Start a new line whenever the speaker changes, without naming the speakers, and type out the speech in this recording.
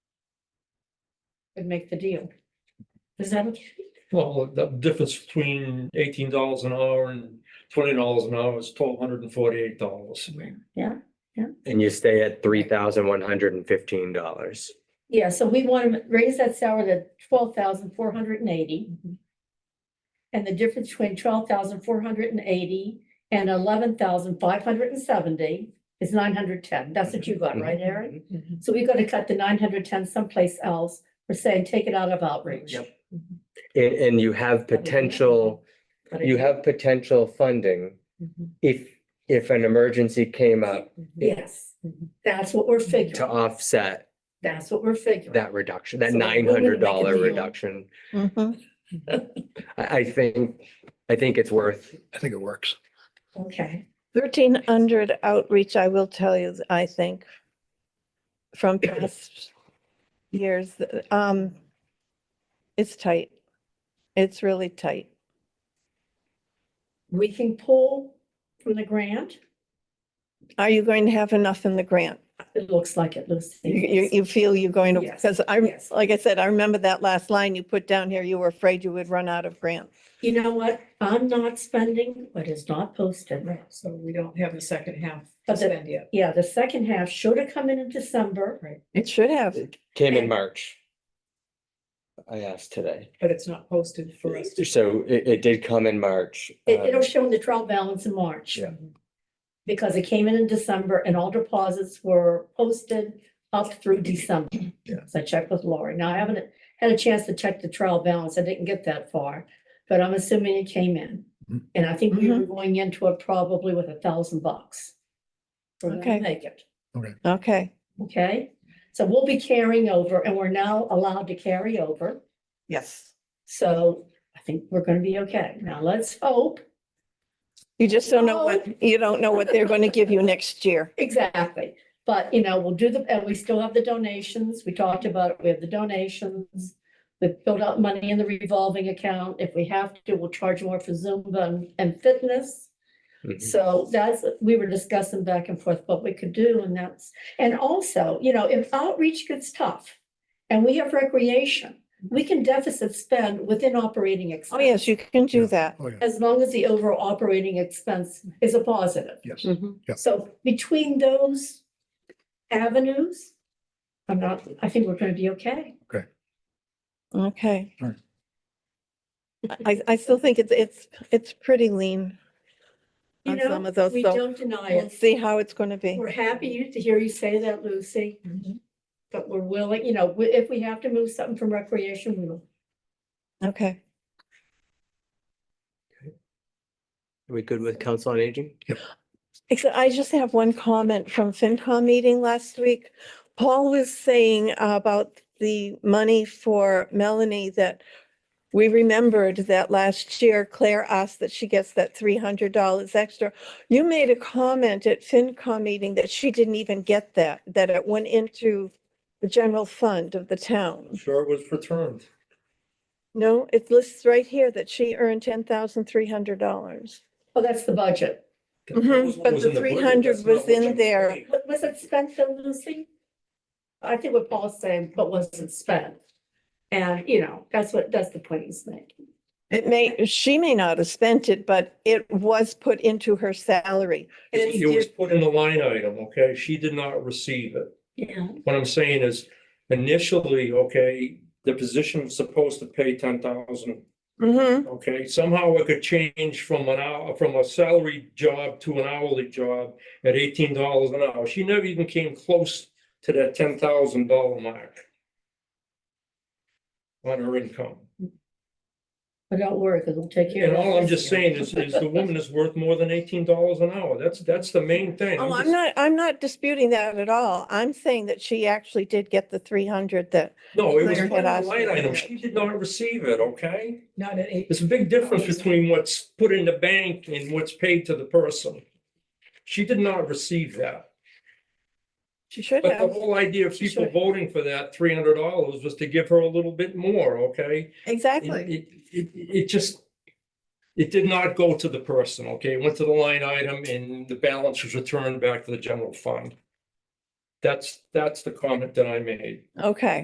and make the deal. Is that okay?
Well, the difference between eighteen dollars an hour and twenty dollars an hour is twelve hundred and forty-eight dollars.
Yeah,
And you stay at three thousand one hundred and fifteen dollars.
yeah, so we want to raise that salary to twelve thousand four hundred and eighty. And the difference between twelve thousand four hundred and eighty and eleven thousand five hundred and seventy is nine hundred ten. That's what you got, right, Aaron? So we got to cut the nine hundred ten someplace else. We're saying take it out of outreach.
Yep.
And, and you have potential,
But it-
you have potential funding
Mhm.
if, if an emergency came up
Yes, that's what we're
to
figuring.
offset
That's what we're figuring.
that reduction, that
So we're gonna
nine
make a
hundred dollar
deal.
reduction.
Mm-hmm.
I, I think, I think it's worth,
I think it works.
Okay,
Thirteen hundred outreach, I will tell you, I think, from past years, um, it's tight. It's really tight.
we can pull from the grant.
Are you going to have enough in the grant?
It looks like it,
You, you,
Lucy.
you feel you're going to,
Yes,
because I'm,
yes.
like I said, I remember that last line you put down here, you were afraid you would run out of grant.
You know what? I'm not spending what is not posted.
Right, so we don't have the second half
But
to
the-
spend yet.
Yeah, the second half should have come in in December.
Right,
It should have.
came in
And-
March. I asked today.
but it's not posted for us. to-
So it, it did come in March.
It,
um,
it'll show in the trial balance in March.
Yeah.
Because it came in in December and all deposits were posted up through December.
Yeah.
So I checked with Lori. Now I haven't had a chance to check the trial balance. I didn't get that far, but I'm assuming it came in.
Mhm.
And I think we were
Mhm.
going into it probably with a thousand bucks. We're gonna
Okay.
Make it.
Okay,
Okay, so we'll be carrying over and we're now allowed to carry over.
yes.
So I think we're gonna be okay. Now let's hope.
You just don't know what, you don't know what they're going to give you next year.
Exactly. But, you know, we'll do the, and we still have the donations. We talked about it. We have the donations. We've built up money in the revolving account. If we have to, we'll charge more for Zumba and- and fitness.
mhm.
So that's, we were discussing back and forth what we could do and that's, and also, you know, if outreach gets tough and we have recreation, we can deficit spend within operating
Oh,
expense.
yes, you can do
Yeah.
that.
Oh, yeah,
As long as the overall operating expense is a positive.
yes. Yeah.
So between those avenues, I'm not, I think we're gonna be okay.
Okay.
Right.
I, I still think it's, it's, it's pretty lean.
You
On
know,
some of those,
we
so
don't deny
We'll
it.
see how it's going to be.
We're happy to hear you say that, Lucy. But we're willing, you know, we- if we have to move something from recreation, we will.
Okay.
Are we good with council on aging?
Except I just have one comment from FinCom meeting last week. Paul was saying about the money for Melanie that we remembered that last year Claire asked that she gets that three hundred dollars extra. You made a comment at FinCom meeting that she didn't even get that, that it went into the general fund of the town.
Sure it was returned.
No, it lists right here that she earned ten thousand three hundred dollars.
Oh, that's the budget.
That
Mhm,
was what
but
was
the
in budget,
300
that's not
was
what
in
you
there.
paid.
Wa- Was it spent though, Lucy? I think what Paul's saying, but wasn't spent. And, you know, that's what, that's the point he's making.
It may, she may not have spent it, but it was put into her salary.
It was put in the line item, okay? She did not receive it.
Yeah.
What I'm saying is initially, okay, the position was supposed to pay ten thousand.
Mm-hmm,
Okay, somehow it could change from an hour, from a salary job to an hourly job at eighteen dollars an hour. She never even came close to that ten thousand dollar mark. On her income.
But don't worry, because we'll take care of
And
it.
all I'm just saying is, is the woman is worth more than eighteen dollars an hour. That's, that's the main thing.
oh, I'm
just-
not, I'm not disputing that at all. I'm saying that she actually did get the three hundred that,
No, it was
Claire
put in
had
the
asked
line
me
item.
that.
She did not receive it, okay?
Not at eight.
There's a big difference between what's put in the bank and what's paid to the person. She did not receive that.
she should
But the
have.
whole idea of people
Sure.
voting for that three hundred dollars was to give her a little bit more, okay? It,
Exactly.
it, it it just, it did not go to the person, okay? It went to the line item and the balance was returned back to the general fund. That's, that's the comment that I made.
Okay.